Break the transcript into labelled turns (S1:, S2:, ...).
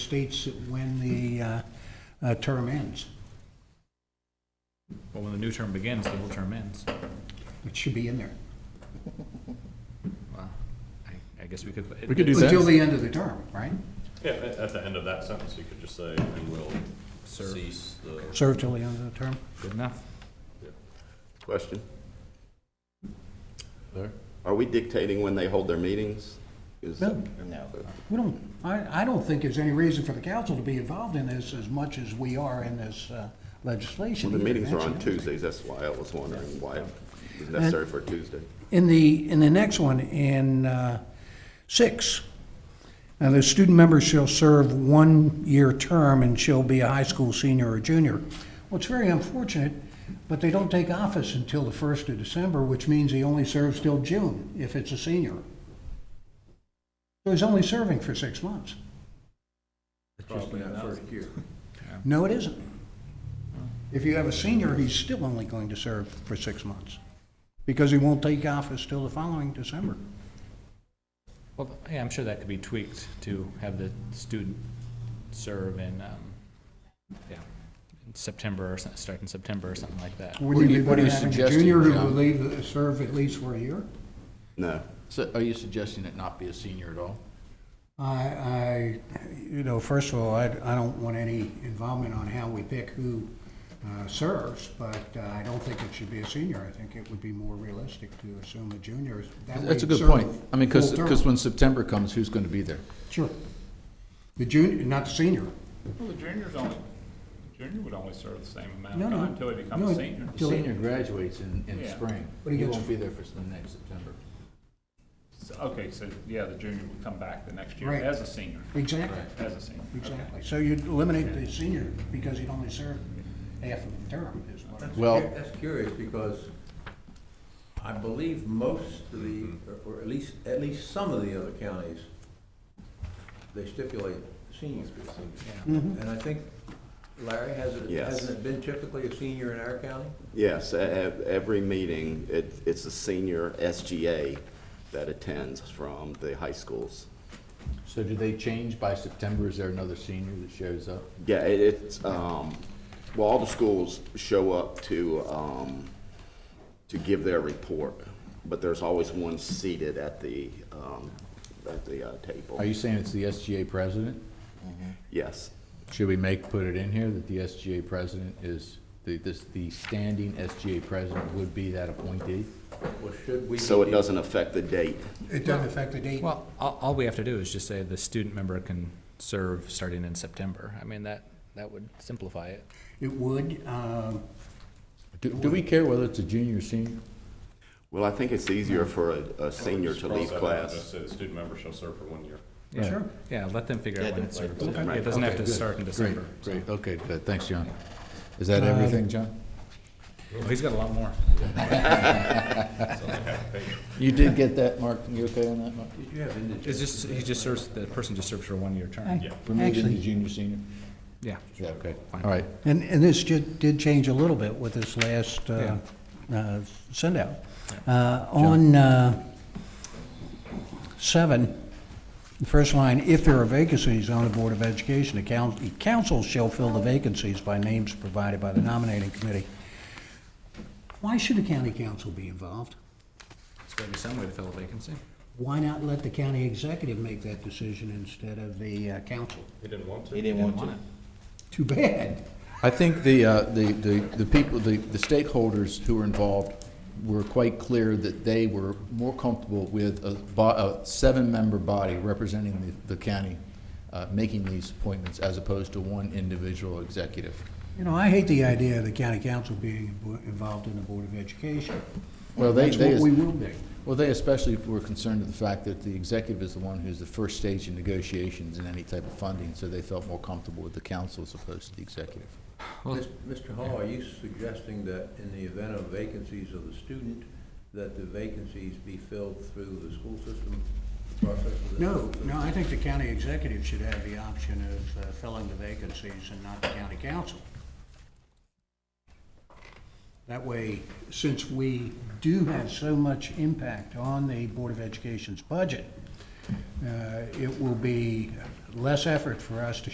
S1: states when the uh, uh, term ends.
S2: Well, when the new term begins, the old term ends.
S1: It should be in there.
S2: Wow. I, I guess we could.
S3: We could do that.
S1: Until the end of the term, right?
S4: Yeah, at, at the end of that sentence, you could just say, "We will
S2: Serve.
S4: cease the."
S1: Serve till the end of the term.
S2: Good enough.
S5: Question? Are we dictating when they hold their meetings? Is-
S1: No.
S6: No.
S1: We don't, I, I don't think there's any reason for the council to be involved in this as much as we are in this uh, legislation.
S5: The meetings are on
S1: That's another thing.
S5: Tuesdays, that's why I was wondering why it was necessary for a Tuesday.
S1: In the, in the next one, in uh, six, now the student member shall serve one-year term and shall be a high school senior or junior. Well, it's very unfortunate, but they don't take office until the first of December, which means he only serves till June if it's a senior. So he's only serving for six months. No, it isn't. If you have a senior, he's still only going to serve for six months, because he won't take office till the following December.
S2: Well, yeah, I'm sure that could be tweaked to have the student serve in, um, yeah, in September or something, start in September or something like that.
S1: Wouldn't
S3: do
S1: it
S3: you-
S1: be
S3: what are
S1: better
S3: you
S1: having a
S3: suggesting,
S1: junior who will
S3: John?
S1: leave, uh, serve at least for a year?
S5: No.
S3: So are you suggesting it not be a senior at all?
S1: I, I, you know, first of all, I, I don't want any involvement on how we pick who uh, serves, but uh, I don't think it should be a senior. I think it would be more realistic to assume a junior. is- that way
S3: That's a good
S1: serve
S3: point. I mean, because,
S1: full term.
S3: when September comes, who's going to be there?
S1: Sure. The junior, not the senior.
S7: Well, the junior's only, the junior would only serve the same amount
S1: No,
S7: of
S1: no.
S7: time until he
S1: No,
S7: becomes a senior.
S1: Till-
S3: graduates in, in
S7: Yeah.
S1: But he gets-
S3: be there for the next September.
S7: So- Okay, so, yeah, the junior would come back the next year
S1: Right.
S7: as a senior,
S1: Exactly,
S7: as a senior. okay.
S1: exactly. So you'd eliminate the senior because he'd only serve half of the term is what. I'm-
S3: Well-
S8: That's curious, because I believe most of the,
S5: Mm-hmm.
S8: or at least, at least some of the other counties, they stipulate seniors. And I think, Larry, has it,
S5: Yes.
S8: hasn't it been typically a senior in our county?
S5: Yes, e- e- every meeting, it, it's a senior SGA that attends from the high schools.
S3: So do they change by September? Is there another senior that shows up?
S5: Yeah, it, it's, um, well, all the schools show up to, um, to give their report, but there's always one seated at the, um, at the, uh,
S3: Are
S5: table.
S3: you saying it's the SGA president?
S5: Yes.
S3: Should we make, put it in here that the SGA president is, the, this, the standing SGA president would be that appointee?
S8: Well, should we?
S5: So it
S8: be-
S5: doesn't affect the date.
S1: It doesn't affect the date.
S2: Well, all, all we have to do is just say the student member can serve starting in September. I mean, that, that would simplify it.
S1: It would, um,
S3: Do, do we care whether it's a junior or senior?
S5: Well, I think it's easier for a, a senior to
S4: Cross
S5: leave
S4: that out,
S5: class.
S4: Just say the student member shall serve for one year.
S2: Yeah.
S1: Sure.
S2: Yeah, let them figure out when it serves.
S3: Okay.
S2: It doesn't have to
S3: Okay, good.
S2: start in
S3: Great,
S2: December. Uh,
S3: Great, okay, good, thanks, John. Is that everything, John?
S2: Well, he's got a lot more.
S3: You did get that, Mark, you okay on that, Mark?
S8: Did you have indigent?
S2: It's just, he just serves, the person just serves for a one-year term.
S3: For me, it's junior, senior?
S2: Yeah.
S3: Yeah, okay, all right.
S1: And, and this did, did change a little bit with this last, uh, uh, send out. Uh, on, uh, seven, the first line, if there are vacancies on the Board of Education, the coun- the council shall fill the vacancies by names provided by the nominating committee. Why should the county council be involved?
S2: There's gotta be some way to fill a vacancy.
S1: Why not let the county executive make that decision instead of the uh, council?
S4: He didn't want to.
S6: He didn't want to.
S1: Too bad.
S3: I think the, uh, the, the the people, the, the stakeholders who were involved were quite clear that they were more comfortable with a, bo- a seven-member body representing the, the county, uh, making these appointments as opposed to one individual executive.
S1: You know, I hate the idea of the county council being involved in the Board of Education.
S3: Well, they,
S1: That's
S3: they.
S1: what we will be.
S3: Well, they especially were concerned with the fact that the executive is the one who's the first stage in negotiations in any type of funding, so they felt more comfortable with the council as opposed to the executive.
S8: Mis- Mr. Hall, are you suggesting that in the event of vacancies of the student, that the vacancies be filled through the school system process? of the
S1: No,
S8: school system?
S1: no, I think the county executive should have the option of uh, filling the vacancies and not the county council. That way, since we do have so much impact on the Board of Education's budget, uh, it will be less effort for us to